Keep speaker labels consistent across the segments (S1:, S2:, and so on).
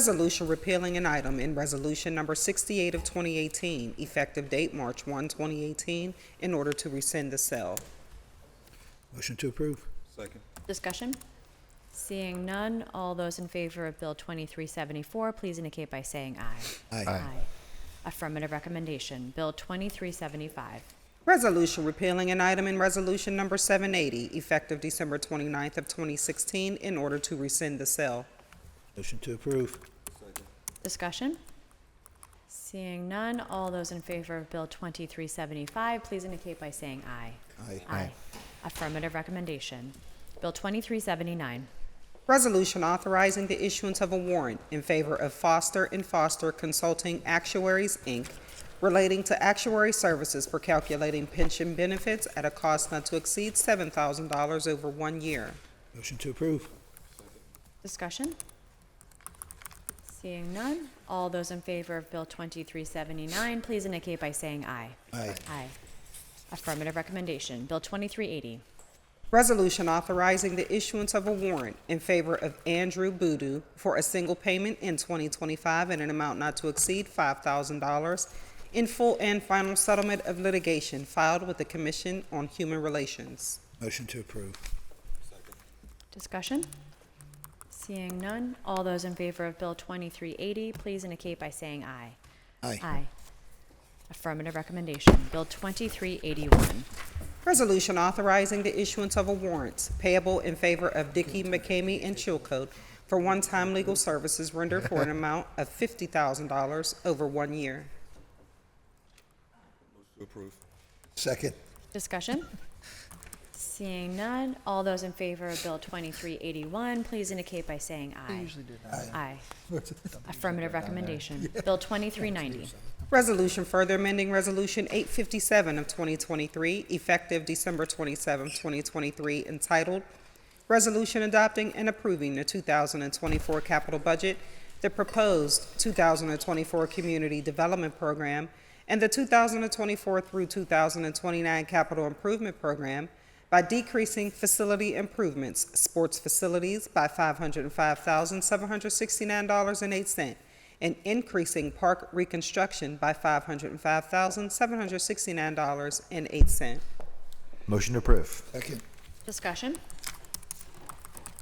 S1: Resolution repealing an item in Resolution Number 68 of 2018, effective date March 1, 2018, in order to rescind the sale.
S2: Motion to approve.
S3: Second.
S4: Discussion? Seeing none, all those in favor of Bill 2374, please indicate by saying aye.
S2: Aye.
S4: Affirmative recommendation, Bill 2375.
S1: Resolution repealing an item in Resolution Number 780, effective December 29th of 2016, in order to rescind the sale.
S2: Motion to approve.
S3: Second.
S4: Discussion? Seeing none, all those in favor of Bill 2375, please indicate by saying aye.
S2: Aye.
S4: Affirmative recommendation, Bill 2379.
S1: Resolution authorizing the issuance of a warrant in favor of Foster and Foster Consulting Actuaries, Inc., relating to actuary services for calculating pension benefits at a cost not to exceed $7,000 over one year.
S2: Motion to approve.
S4: Discussion? Seeing none, all those in favor of Bill 2379, please indicate by saying aye.
S2: Aye.
S4: Aye. Affirmative recommendation, Bill 2380.
S1: Resolution authorizing the issuance of a warrant in favor of Andrew Boodoo for a single payment in 2025 in an amount not to exceed $5,000 in full and final settlement of litigation filed with the Commission on Human Relations.
S2: Motion to approve.
S4: Discussion? Seeing none, all those in favor of Bill 2380, please indicate by saying aye.
S2: Aye.
S4: Aye. Affirmative recommendation, Bill 2381.
S1: Resolution authorizing the issuance of a warrant payable in favor of Dicky McCamey and Chilcote for one-time legal services rendered for an amount of $50,000 over one year.
S3: To approve.
S2: Second.
S4: Discussion? Seeing none, all those in favor of Bill 2381, please indicate by saying aye. Aye. Affirmative recommendation, Bill 2390.
S1: Resolution further amending Resolution 857 of 2023, effective December 27, 2023, entitled Resolution Adopting and Approving the 2024 Capital Budget, the Proposed 2024 Community Development Program, and the 2024 through 2029 Capital Improvement Program by decreasing facility improvements, sports facilities by $505,769.08, and increasing park reconstruction by $505,769.08.
S5: Motion to approve.
S2: Second.
S4: Discussion?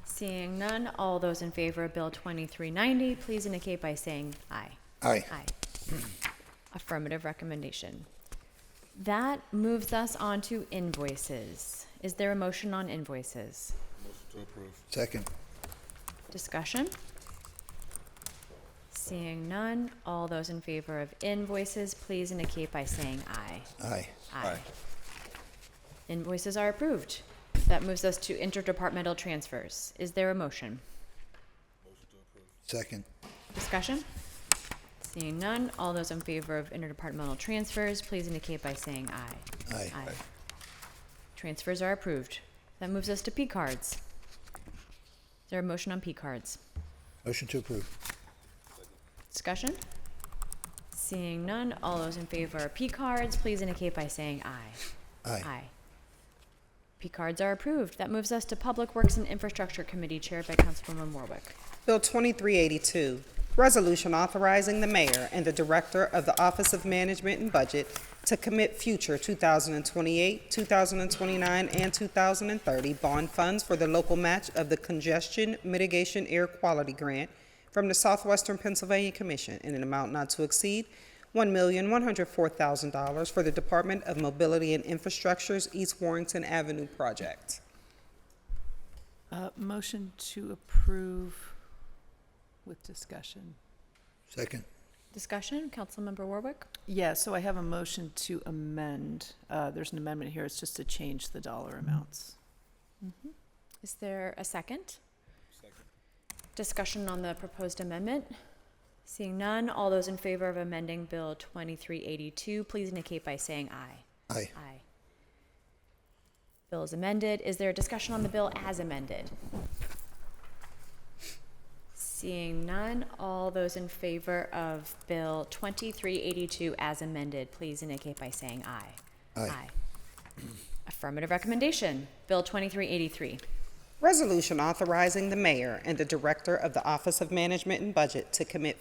S4: Seeing none, all those in favor of Bill 2390, please indicate by saying aye.
S2: Aye.
S4: Aye. Affirmative recommendation. That moves us on to invoices. Is there a motion on invoices?
S3: Motion to approve.
S2: Second.
S4: Discussion? Seeing none, all those in favor of invoices, please indicate by saying aye.
S2: Aye.
S3: Aye.
S4: Invoices are approved. That moves us to interdepartmental transfers. Is there a motion?
S2: Second.
S4: Discussion? Seeing none, all those in favor of interdepartmental transfers, please indicate by saying aye.
S2: Aye.
S4: Transfers are approved. That moves us to P cards. Is there a motion on P cards?
S2: Motion to approve.
S4: Discussion? Seeing none, all those in favor of P cards, please indicate by saying aye.
S2: Aye.
S4: P cards are approved. That moves us to Public Works and Infrastructure Committee chaired by Councilwoman Warwick.
S1: Bill 2382, resolution authorizing the mayor and the director of the Office of Management and Budget to commit future 2028, 2029, and 2030 bond funds for the local match of the Congestion Mitigation Air Quality Grant from the Southwestern Pennsylvania Commission in an amount not to exceed $1,104,000 for the Department of Mobility and Infrastructure's East Warrington Avenue project.
S6: Uh, Motion to approve with discussion.
S2: Second.
S4: Discussion, Councilmember Warwick?
S6: Yeah, so I have a motion to amend. Uh, There's an amendment here, it's just to change the dollar amounts.
S4: Is there a second? Second. Discussion on the proposed amendment? Seeing none, all those in favor of amending Bill 2382, please indicate by saying aye.
S2: Aye.
S4: Aye. Bill is amended. Is there a discussion on the bill as amended? Seeing none, all those in favor of Bill 2382 as amended, please indicate by saying aye.
S2: Aye.
S4: Affirmative recommendation, Bill 2383.
S1: Resolution authorizing the mayor and the director of the Office of Management and Budget to commit